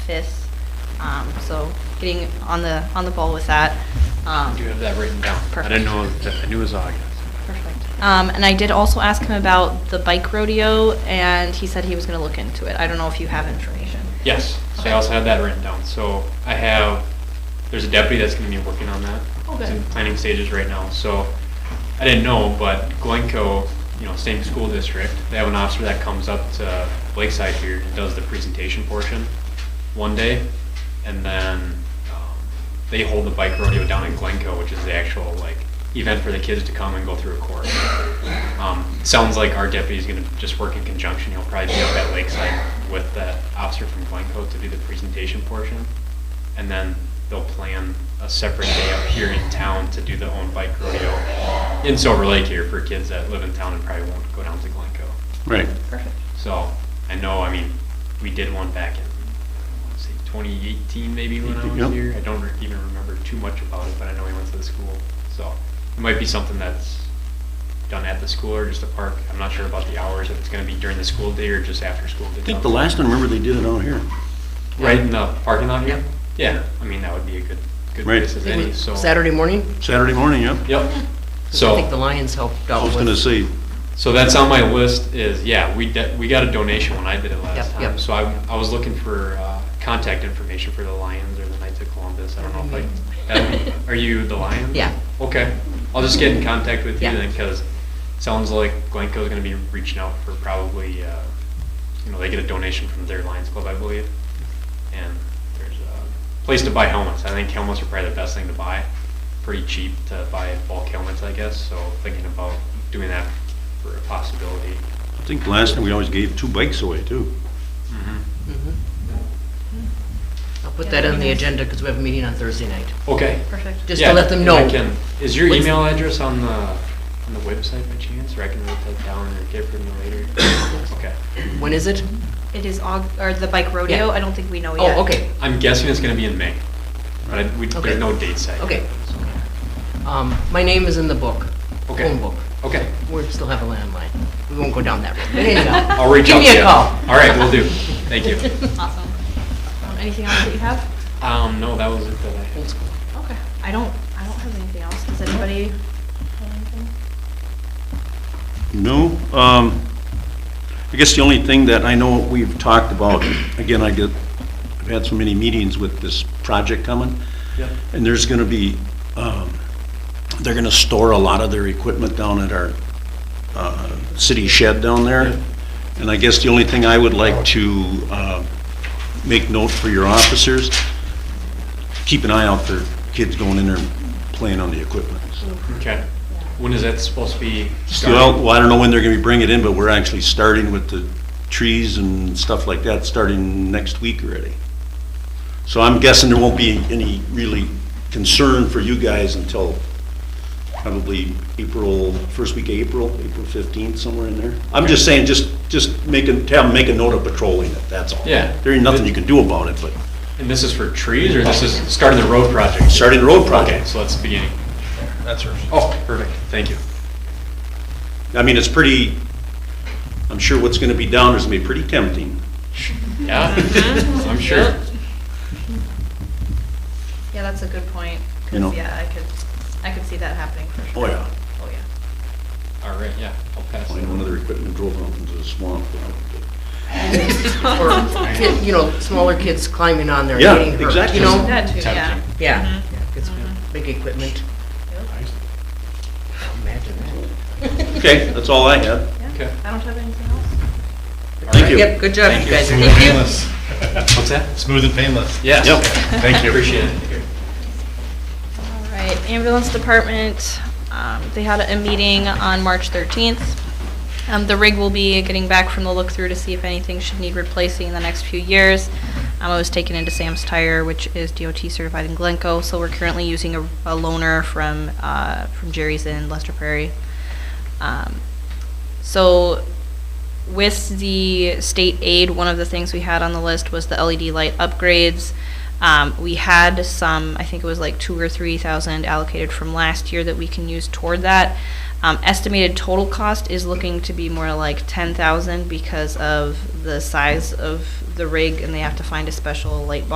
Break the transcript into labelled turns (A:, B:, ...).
A: TIS. Um, So getting on the, on the ball with that. Um,
B: You have that written down. I
A: Perfect.
B: didn't know, that- I knew it was August.
A: Perfect. Um, And I did also ask him about the bike rodeo, and he said he was going to look into it. I don't know if you have information.
B: Yes, so
A: Okay.
B: I also had that written down. So I have, there's a deputy that's gonna be working on that.
A: Oh,
B: It's
A: good.
B: in planning stages right now, so I didn't know, but Glencoe, you know, same school district, they have an officer that comes up to Lakeside here and does the presentation portion one day. And then um, they hold the bike rodeo down in Glencoe, which is the actual like event for the kids to come and go through a course. Um, Sounds like our deputy's gonna just work in conjunction, he'll probably be up at Lakeside with that officer from Glencoe to do the presentation portion. And then they'll plan a separate day up here in town to do the own bike rodeo in Silver Lake here for kids that live in town and probably won't go down to Glencoe.
C: Right.
A: Perfect.
B: So, I know, I mean, we did one back in, let's see, twenty eighteen maybe when I
C: Yep.
B: was here. I don't re- even remember too much about it, but I know we went to the school. So, it might be something that's done at the school or just a park. I'm not sure about the hours, if it's gonna be during the school day or just after school.
C: I think the last one, remember, they did it out here.
B: Right in the parking lot here? Yeah, I mean, that would be a good, good
C: Right.
B: place as any, so.
D: Saturday morning?
C: Saturday morning, yep.
B: Yep.
D: 'Cause
B: So.
D: I think the Lions helped
C: I
D: out
C: was
D: with.
C: gonna say,
B: So that's on my list is, yeah, we, de- we got a donation when I did it last
D: Yep,
B: time.
D: yep.
B: So I, I was looking for uh, contact information for the Lions or the Knights of Columbus. I don't know if I, Adam, are you the Lions?
D: Mm-hmm. Yeah.
B: Okay. I'll just get in contact with you
D: Yeah.
B: then because sounds like Glencoe's going to be reaching out for probably, uh, you know, they get a donation from their Lions Club, I believe. And there's a place to buy helmets. I think helmets are probably the best thing to buy. Pretty cheap to buy bulk helmets, I guess. So thinking about doing that for a possibility.
C: I think last time we always gave two bikes away, too.
D: Mhm.
A: Mm-hmm.
D: I'll put that on the agenda because we have a meeting on Thursday night,
B: Okay.
A: Perfect.
D: just
B: Yeah,
D: to let them
B: and
D: know.
B: I can- Is your
D: What's-
B: email address on the, on the website by chance, or I can write that down or get it from you later? Okay.
D: When is it?
A: It is, Aug- or the bike rodeo,
D: Yeah.
A: I don't think we know yet.
D: Oh, okay,
B: I'm guessing it's gonna be in May, but I- we,
D: Okay.
B: there's no date set. yet.
D: okay. Um, my name is in the book,
B: Okay.
D: phone book.
B: Okay.
D: We still have a landline. We won't go down that road. But anyhow,
B: I'll reach out to you.
D: Give me a call.
B: All right, will do. Thank you.
A: Awesome. Um, Anything else that you have?
B: Um, no, that was it that I had.
D: Old school.
A: Okay. I don't, I don't have anything else. Does anybody have anything?
C: No, um, I guess the only thing that I know we've talked about, again, I get, I've had so many meetings with this project coming,
B: Yep.
C: and there's gonna be, um, they're gonna store a lot of their equipment down at our, uh, city shed down there. And I guess the only thing I would like to, uh, make note for your officers, keep an eye out for kids going in there and playing on the equipment.
B: Okay. When is that supposed to be?
C: Well,
B: starting?
C: well, I don't know when they're gonna be bringing it in, but we're actually starting with the trees and stuff like that, starting next week already. So I'm guessing there won't be any really concern for you guys until probably April, first week of April, April fifteenth, somewhere in there. I'm just saying, just, just make a, tell them, make a note of patrolling it, that's all.
B: Yeah.
C: There ain't nothing you can do about it, but
B: And this is for trees, or this is starting the road project?
C: starting the road
B: Okay,
C: project.
B: so that's the beginning.
C: That's her.
B: Oh, perfect. Thank you.
C: I mean, it's pretty, I'm sure what's gonna be down is gonna be pretty tempting.
B: Yeah,
D: Uh-huh.
B: I'm sure.
A: Yeah, that's a good point. 'cause,
C: You know.
A: Yeah, I could, I could see that happening for sure.
C: Oh, yeah.
A: Oh, yeah.
B: All right, yeah, I'll pass.
C: I
B: it.
C: know one of their equipment drove out into the swamp.
D: Or, kid- you know, smaller kids climbing on there. and
C: Yeah,
D: getting hurt,
C: exactly.
D: You know?
A: That too, yeah.
B: Tempting.
D: Yeah, it's big equipment. Imagine that.
C: Okay, that's all I had.
B: Okay.
A: I don't have anything else.
C: Thank you.
D: Yep, good job,
B: Thank
D: you
B: you.
D: guys.
E: Smooth and painless.
B: What's that?
E: Smooth and painless.
B: Yes.
C: Yep.
E: Thank you.
B: Appreciate it.
A: All right, ambulance department, um, they had a meeting on March 13th. Um, The rig will be getting back from the look-through to see if anything should need replacing in the next few years. Um, It was taken into Sam's Tire, which is DOT certified in Glencoe, so we're currently using a a loaner from uh, from Jerry's in Lester Prairie. Um, So with the state aid, one of the things we had on the list was the LED light upgrades. Um, we had some, I think it was like two or three thousand allocated from last year that we can use toward that. Um, estimated total cost is looking to be more like ten thousand because of the size of the rig and they have to find a special light bulb